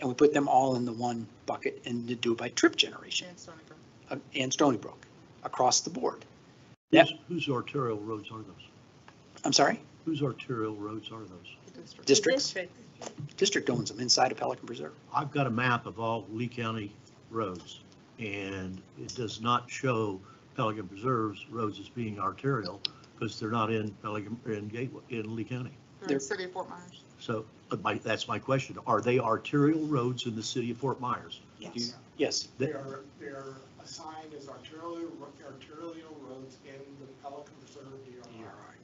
and we put them all in the one bucket and to do it by trip generation And Stony Brook. uh, and Stony Brook across the board. Yep. Whose- Whose arterial roads are those? I'm sorry, Whose arterial roads are those? The district. districts, District. district owns them inside of Pelican Preserve. I've got a map of all Lee County roads, and it does not show Pelican Preserve's roads as being arterial, because they're not in Pelican, in Gateway, in Lee County. They're in They're- the City of Fort Myers. So, but my, that's my question, are they arterial roads in the city of Fort Myers? Yes. Yes, They- They are, they are assigned as arterial, arterial roads in the Pelican Reserve DRI.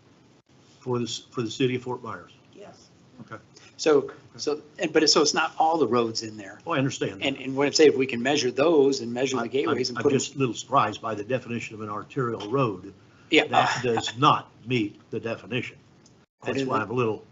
For this, for the city of Fort Myers? Yes. Okay. So, so, and, but it's, so it's not all the roads in there. Oh, I understand. that. And, and what I'm saying, if we can measure those and measure I- the gateways and I'm- put I'm them, just a little surprised by the definition of an arterial road. yeah. That uh, does not meet the definition. That That's is- why I'm a little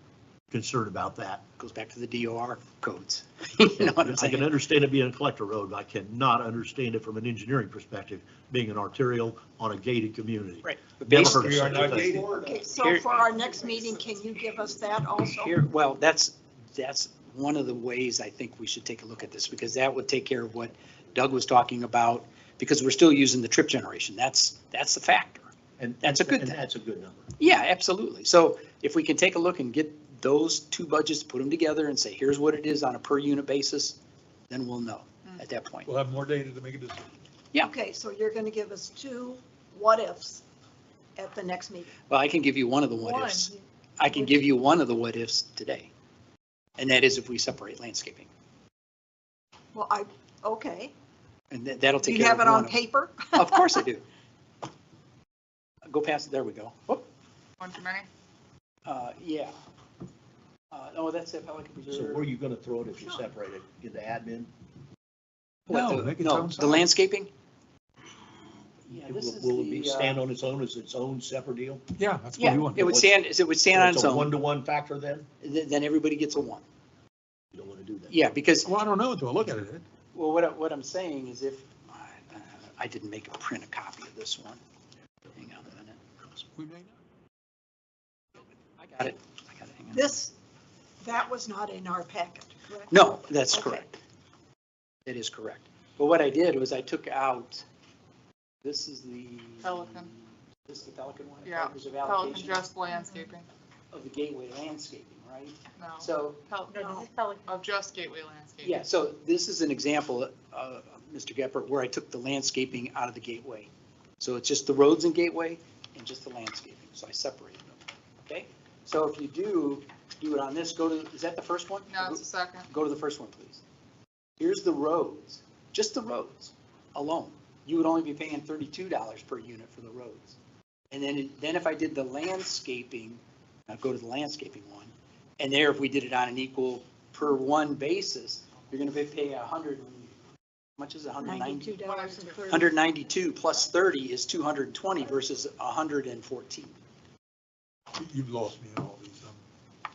concerned about that. Goes back to the DOR codes. You know what I'm I can saying? understand it being a collector road, but I cannot understand it from an engineering perspective, being an arterial on a gated community. Right. But Never basically- heard of such a thing. Florida. Okay, so Here- for our next meeting, can you give us that also? Here, well, that's, that's one of the ways I think we should take a look at this, because that would take care of what Doug was talking about, because we're still using the trip generation. That's, that's the factor. And That's a good and thing. That's a good number. Yeah, absolutely. So if we can take a look and get those two budgets, put them together and say, here's what it is on a per unit basis, then we'll know at that point. We'll have more data to make a decision. Yeah. Okay, so you're going to give us two what-ifs at the next meeting. Well, I can give you one of the what ifs. One, I can give you one of the what ifs today. And that is if we separate landscaping. Well, I, okay. And that- that'll Do take you care of have it one on of them. paper? Of course I do. Go past, it. there we go. Whoop. One too many? Uh, yeah. Uh, oh, that's at Pelican So where are Preserve. you going to throw it if you Sure. separate it? In the admin? What, No, the- make it No, town the side. landscaping? Yeah, It this is Will will it be, the, uh, stand on its own as its own separate deal? Yeah, that's what we Yeah, want. it would stand, it would stand on its It's a own, one-to-one factor then? Th- then everybody gets a one. You don't want to do that. Yeah, because, Well, I don't know until I look at it. well, what, I- what I'm saying is if, I- uh, I didn't make a print a copy of this one. Hang on a minute. We may not. I got it. I got it. Hang on. This, that was not in our packet, correct? No, that's Okay. correct. That is correct. But what I did was I took out, this is the. Pelican. This is the Pelican one? Yeah, Papers of Pelican allocation just landscaping. of the gateway landscaping, right? No. So, Pel- No, this no, is Of just gateway landscaping. yeah, so this is an example, uh, Mr. Gephardt, where I took the landscaping out of the gateway. So it's just the roads and gateway and just the landscaping. So I separated them, okay? So if you do, do it on this, go to, is that the first one? No, it's a second. Go to the first one, please. Here's the roads, just the roads alone. You would only be paying thirty-two dollars per unit for the roads. And then, then if I did the landscaping, now go to the landscaping one, and there, if we did it on an equal per one basis, you're gonna be paying a hundred, and- how much is a hundred ninety? Ninety-two dollars and thirty. Hundred ninety-two plus thirty is two hundred and twenty versus a hundred and fourteen. You- You've lost me in all these. um,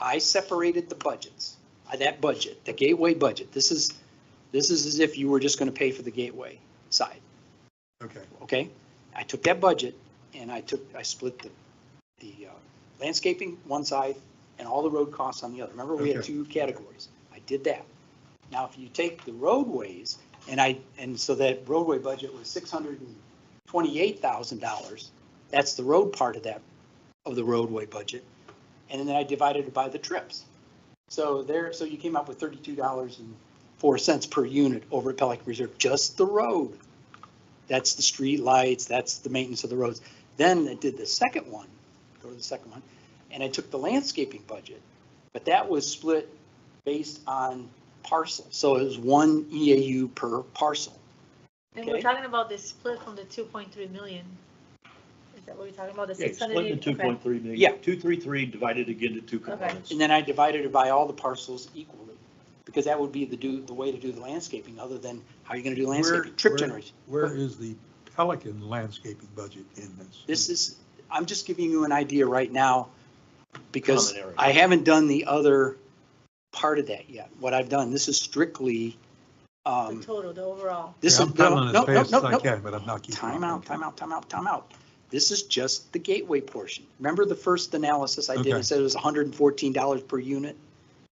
I separated the budgets, uh, that budget, the gateway budget. This is, this is as if you were just going to pay for the gateway side, Okay, okay? I took that budget and I took, I split the, the uh, landscaping one side and all the road costs on the other. Remember, we had Okay. two categories. I did that. Now, if you take the roadways and I, and so that roadway budget was six hundred and twenty-eight thousand dollars. That's the road part of that, of the roadway budget. And then I divided it by the trips. So there, so you came up with thirty-two dollars and four cents per unit over at Pelican Reserve, just the road. That's the street lights, that's the maintenance of the roads. Then I did the second one, go to the second one, and I took the landscaping budget. But that was split based on parcel, so it was one EAU per parcel. And we're Okay. talking about the split from the two point three million. Is that what we're talking about, the Yeah, six hundred? split into 2.3 million. Yeah. 233 divided again to two components. And then I divided it by all the parcels equally, because that would be the do, the way to do the landscaping, other than how you're gonna do landscaping, trip where- generation. Where is the Pelican landscaping budget in this? This is, I'm just giving you an idea right now, because Common area. I haven't done the other part of that yet. What I've done, this is strictly, The um, total, the overall. this is. I'm coming no, as no, fast no, as I no. can, but I'm not keeping. Time up. out, time out, time out, time out. This is just the gateway portion. Remember the first analysis I did, I Okay. said it was hundred and fourteen dollars per unit?